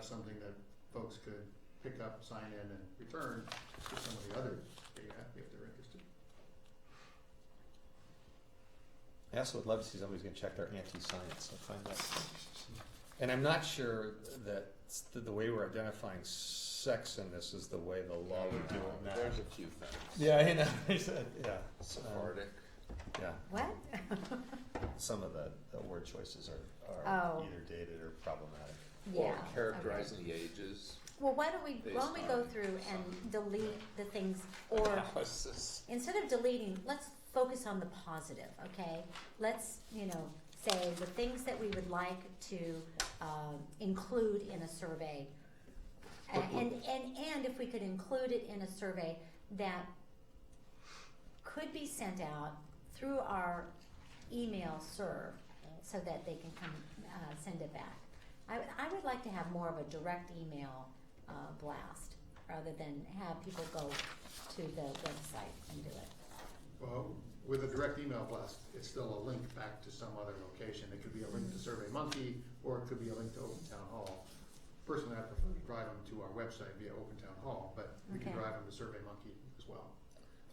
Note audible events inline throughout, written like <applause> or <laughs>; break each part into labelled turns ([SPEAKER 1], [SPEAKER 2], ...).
[SPEAKER 1] something that folks could pick up, sign in, and return to some of the other data if they're interested.
[SPEAKER 2] I also would love to see somebody's going to check their anti-science and find out. And I'm not sure that s- the, the way we're identifying sex in this is the way the law would do it now.
[SPEAKER 3] There's a few things.
[SPEAKER 2] Yeah, you know, <laughs> there's a- yeah, um,
[SPEAKER 3] Sephardic.
[SPEAKER 2] yeah.
[SPEAKER 4] What?
[SPEAKER 2] Some of the, the word choices are, are
[SPEAKER 4] Oh.
[SPEAKER 2] either dated or problematic.
[SPEAKER 4] Yeah.
[SPEAKER 3] Or characterizing the ages.
[SPEAKER 4] okay. Well, why don't we,
[SPEAKER 3] based
[SPEAKER 4] why don't we go
[SPEAKER 3] on
[SPEAKER 4] through
[SPEAKER 3] some-
[SPEAKER 4] and delete the things, or
[SPEAKER 3] Analysis.
[SPEAKER 4] instead of deleting, let's focus on the positive, okay? Let's, you know, say the things that we would like to, um, include in a survey. A- And, and, and if we could include it in a survey that could be sent out through our email serve, so that they can come, uh, send it back. I, I would like to have more of a direct email, uh, blast, rather than have people go to the website and do it.
[SPEAKER 1] Well, with a direct email blast, it's still a link back to some other location. It could be a link to Survey Monkey, or it could be a link to Open Town Hall. Personally, I prefer to drive them to our website via Open Town Hall, but we can
[SPEAKER 4] Okay.
[SPEAKER 1] drive them to Survey Monkey as well.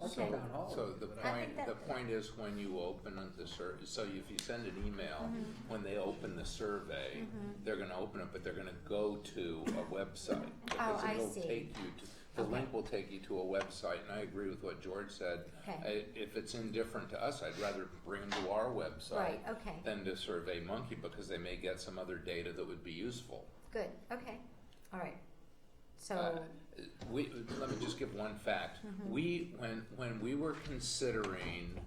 [SPEAKER 4] Okay.
[SPEAKER 3] So, so the
[SPEAKER 4] I
[SPEAKER 3] point,
[SPEAKER 4] think that-
[SPEAKER 3] the point is when you open up the sur- so if you send an email,
[SPEAKER 4] Mm-hmm.
[SPEAKER 3] when they open the survey, they're gonna open it, but they're gonna go to a
[SPEAKER 4] <laughs>
[SPEAKER 3] website. because
[SPEAKER 4] Oh, I
[SPEAKER 3] it'll
[SPEAKER 4] see.
[SPEAKER 3] take you to- The
[SPEAKER 4] Okay.
[SPEAKER 3] link will take you to a website, and I agree with what George said.
[SPEAKER 4] Okay.
[SPEAKER 3] I- If it's indifferent to us, I'd rather bring them to our website
[SPEAKER 4] Right, okay.
[SPEAKER 3] than to Survey Monkey, because they may get some other data that would be useful.
[SPEAKER 4] Good, okay, all right.
[SPEAKER 3] Uh,
[SPEAKER 4] So,
[SPEAKER 3] we, let me just give one fact. We, when, when we were considering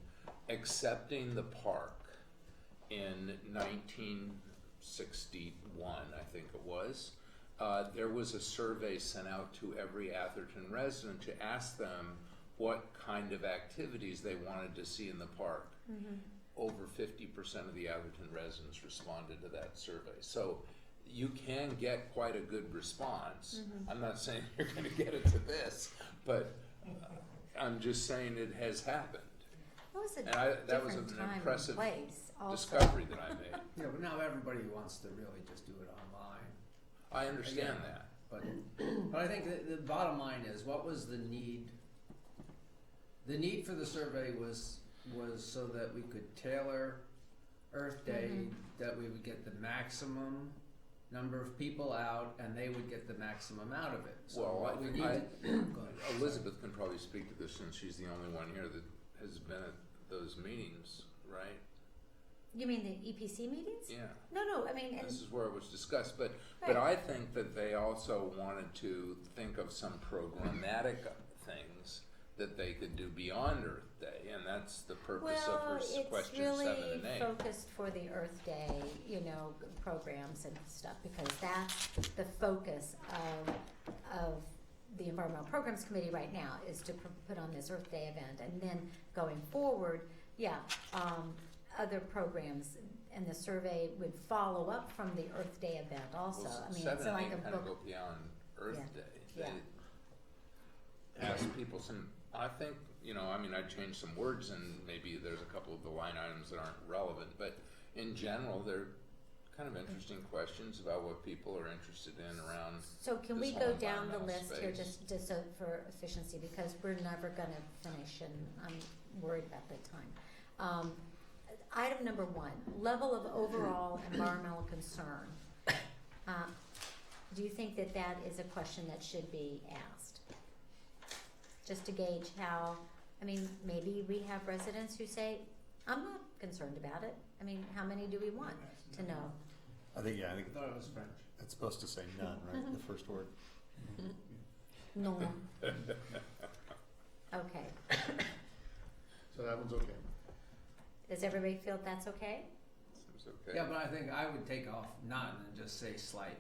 [SPEAKER 3] accepting the park in nineteen sixty-one, I think it was, uh, there was a survey sent out to every Atherton resident to ask them what kind of activities they wanted to see in the park. Over fifty percent of the Atherton residents responded to that survey. So you can get quite a good response.
[SPEAKER 4] Mm-hmm.
[SPEAKER 3] I'm not saying <laughs> you're gonna get it to this, but I'm just saying it has happened.
[SPEAKER 4] that was a
[SPEAKER 3] and I- that was
[SPEAKER 4] different
[SPEAKER 3] an
[SPEAKER 4] time and
[SPEAKER 3] impressive
[SPEAKER 4] place also.
[SPEAKER 3] Discovery that I
[SPEAKER 4] <laughs>
[SPEAKER 3] made.
[SPEAKER 5] Yeah, but now everybody wants to really just do it online.
[SPEAKER 3] I understand that.
[SPEAKER 5] But but I think the, the bottom line is what was the need? The need for the survey was was so that we could tailor Earth Day that we would get the maximum number of people out and they would get the maximum out of it. So
[SPEAKER 3] Well,
[SPEAKER 5] what
[SPEAKER 3] I- <coughs>
[SPEAKER 5] we need
[SPEAKER 3] I-
[SPEAKER 5] go ahead.
[SPEAKER 3] Elizabeth can probably speak to this since she's the only one here that has been at those meetings, right?
[SPEAKER 4] You mean the EPC meetings?
[SPEAKER 3] Yeah.
[SPEAKER 4] No, no, I mean, and,
[SPEAKER 3] This is where it was discussed, but, but I think that they also wanted to think of some programmatic things that they could do beyond Earth Day, and that's the purpose of her
[SPEAKER 4] well,
[SPEAKER 3] s-
[SPEAKER 4] it's
[SPEAKER 3] question
[SPEAKER 4] really
[SPEAKER 3] seven and eight.
[SPEAKER 4] focused for the Earth Day, you know, g- programs and stuff, because that's the focus of, of the Environmental Programs Committee right now, is to pr- put on this Earth Day event, and then going forward, yeah, um, other programs, and the survey would follow up from the Earth Day event also,
[SPEAKER 3] Well,
[SPEAKER 4] I mean, it's
[SPEAKER 3] seven and
[SPEAKER 4] like a
[SPEAKER 3] eight kind of
[SPEAKER 4] book
[SPEAKER 3] go beyond Earth
[SPEAKER 4] Yeah.
[SPEAKER 3] Day.
[SPEAKER 4] Yeah.
[SPEAKER 3] They Ask people some, I think, you know, I mean, I changed some words and maybe there's a couple of the line items that aren't relevant, but in general, they're kind of interesting questions about what people are interested in around
[SPEAKER 4] So can we
[SPEAKER 3] this
[SPEAKER 4] go
[SPEAKER 3] whole
[SPEAKER 4] down the
[SPEAKER 3] environmental
[SPEAKER 4] list here
[SPEAKER 3] space.
[SPEAKER 4] just, just so for efficiency, because we're never gonna finish and I'm worried about the time. Um, item number one, level of overall environmental concern. Uh, Do you think that that is a question that should be asked? Just to gauge how, I mean, maybe we have residents who say, I'm not concerned about it. I mean, how many do we want to know?
[SPEAKER 2] I think, yeah, I think
[SPEAKER 5] I thought it was French.
[SPEAKER 2] it's supposed to say none,
[SPEAKER 4] Mm-hmm.
[SPEAKER 2] right? The first word.
[SPEAKER 4] No. Okay.
[SPEAKER 1] <laughs> So that one's okay.
[SPEAKER 4] Does everybody feel that's okay?
[SPEAKER 3] Seems okay.
[SPEAKER 5] Yeah, but I think I would take off none and just say slight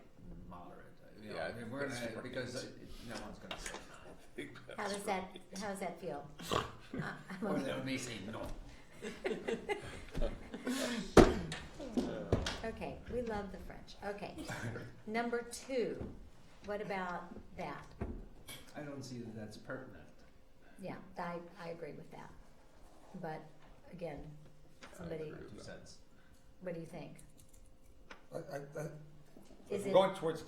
[SPEAKER 5] moderate. You know,
[SPEAKER 3] Yeah, I
[SPEAKER 5] I mean,
[SPEAKER 3] think
[SPEAKER 5] we're
[SPEAKER 3] that's
[SPEAKER 5] gonna,
[SPEAKER 3] right.
[SPEAKER 5] because uh, no one's gonna say none.
[SPEAKER 4] How does that How does that feel? I- I'm
[SPEAKER 5] Or
[SPEAKER 4] okay.
[SPEAKER 5] they may say no.
[SPEAKER 4] okay, we love the French. Okay, number two. What about that?
[SPEAKER 5] I don't see that that's pertinent.
[SPEAKER 4] Yeah, I I agree with that. But again, somebody,
[SPEAKER 3] agree.
[SPEAKER 5] Two cents.
[SPEAKER 4] what do you think?
[SPEAKER 2] I, I, I,
[SPEAKER 4] Is it
[SPEAKER 2] going towards